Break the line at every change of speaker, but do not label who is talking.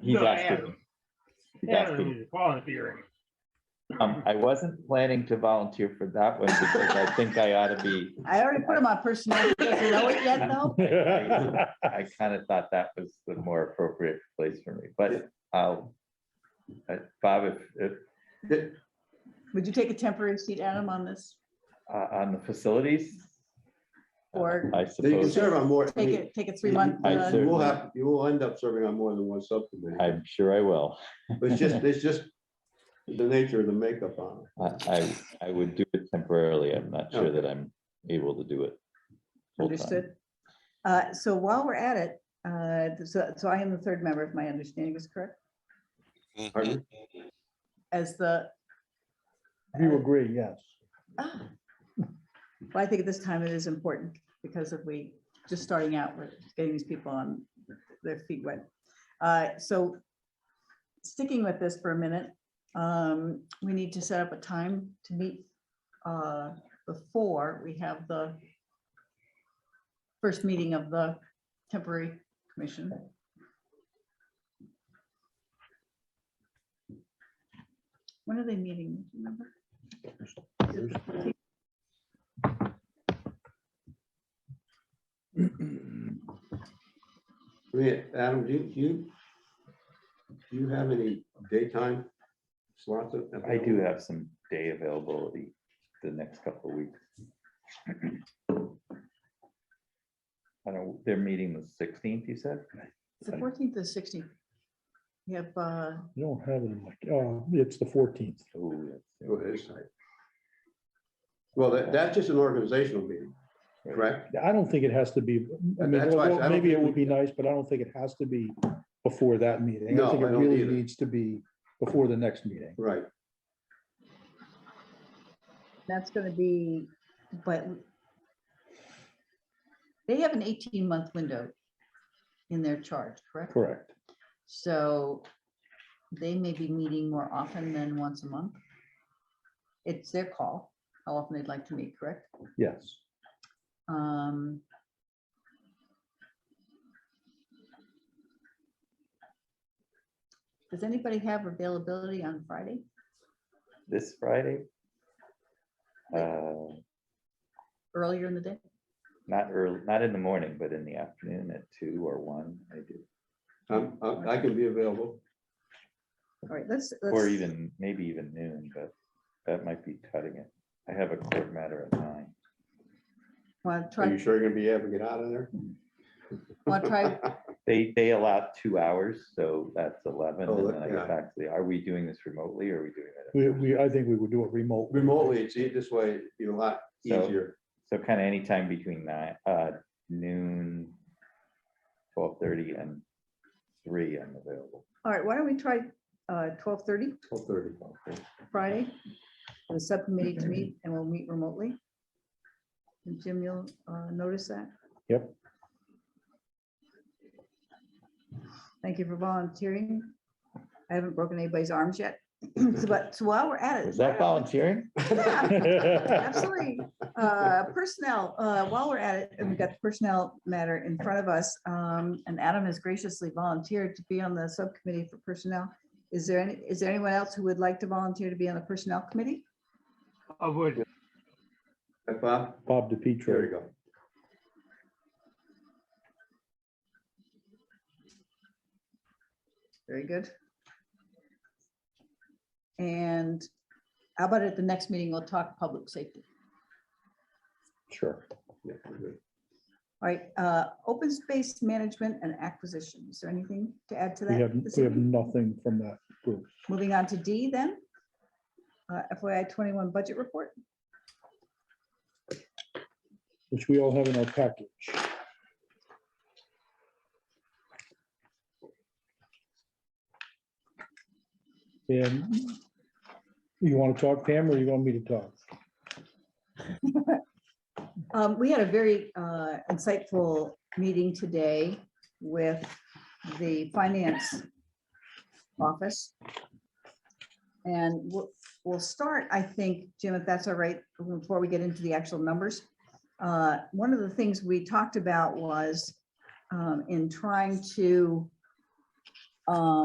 He's
No, I
asking. me.
am.
He's asking. me.
And volunteering.
Um, I wasn't planning to volunteer for that one because I think I ought to be.
I already put him on personnel. He doesn't know it yet, though.
I kind of thought that was the more appropriate place for me, but I'll. uh, Bob, if, if,
Would you take a temporary seat, Adam, on this?
uh, on the facilities?
Or
I
You can
suppose,
serve on more. I
take
mean,
it, take a three-month?
I
uh,
see.
You will have, you will end up serving on more than one subcommittee.
I'm sure I will.
But it's just, it's just the nature of the makeup on it.
I, I, I would do it temporarily. I'm not sure that I'm able to do it. full-time.
Understood. Uh, So while we're at it, uh, so so I am the third member, if my understanding is correct,
Pardon?
as the,
You agree, yes.
ah. Well, I think at this time it is important because if we, just starting out, we're getting these people on their feet wet. Uh, So sticking with this for a minute, um, we need to set up a time to meet uh, before we have the first meeting of the temporary commission. When are they meeting? Do you Remember?
I mean, Adam, do you, do you, do you have any daytime slots? available?
I do have some day availability the next couple of weeks. I don't, they're meeting the sixteenth, you said?
It's The fourteenth to sixteenth. You have, uh,
I don't have it in my, oh, it's the fourteenth.
Oh, yes.
Go ahead, sorry. Well, that, that's just an organizational meeting, correct?
I don't think it has to be, I mean,
That's why I said I
well,
don't
maybe it
think
would be nice, but I don't think it has to be before that meeting.
No,
I think
I
it
don't
really
either.
needs to be before the next meeting.
Right.
that's gonna be, but they have an eighteen-month window in their charge, correct?
Correct.
So they may be meeting more often than once a month. It's their call, how often they'd like to meet, correct?
Yes.
Um. Does anybody have availability on Friday?
This Friday? Uh,
earlier in the day?
not early, not in the morning, but in the afternoon at two or one, I do,
I'm, I I can be available.
All right, let's.
or
let's-
even, maybe even noon, but that might be cutting it. I have a court matter at nine.
Wanna
Are
try,
you sure you're gonna be able to get out of there?
wanna try,
They, they allow two hours, so that's eleven,
Oh,
and then I
yeah.
get back to the, are we doing this remotely, or are we doing it?
We, we, I think we would do it remotely.
Remotely, it's e- this way, you know, a lot
So-
easier.
So kind of anytime between nine, uh, noon, twelve thirty and three, I'm available.
all right, why don't we try uh, twelve thirty
Twelve thirty.
Friday? for The subcommittee to meet and we'll meet remotely. And Jim, you'll uh, notice that?
Yep.
Thank you for volunteering. I haven't broken anybody's arms yet. So, But so while we're at it.
Was that volunteering?
Yeah.
Yes.
Absolutely. Uh, Personnel, uh, while we're at it, and we've got the personnel matter in front of us, um, and Adam has graciously volunteered to be on the subcommittee for personnel. Is there any, is there anyone else who would like to volunteer to be on the personnel committee?
I would,
Bob,
Bob
there you
DiPietro.
go.
Very good. And how about at the next meeting, we'll talk public safety.
Sure.
Yeah, we're good.
All right, uh, open space management and acquisition. Is there anything to add to
We have,
that? this
we have
evening?
nothing from that group.
Moving on to D then. Uh, FYI twenty-one budget report.
which we all have in our package. And you want to talk, Pam, or you want me to talk?
Um, we had a very uh, insightful meeting today with the finance office. And we'll, we'll start, I think, Jim, if that's all right, before we get into the actual numbers. Uh, One of the things we talked about was um, in trying to um,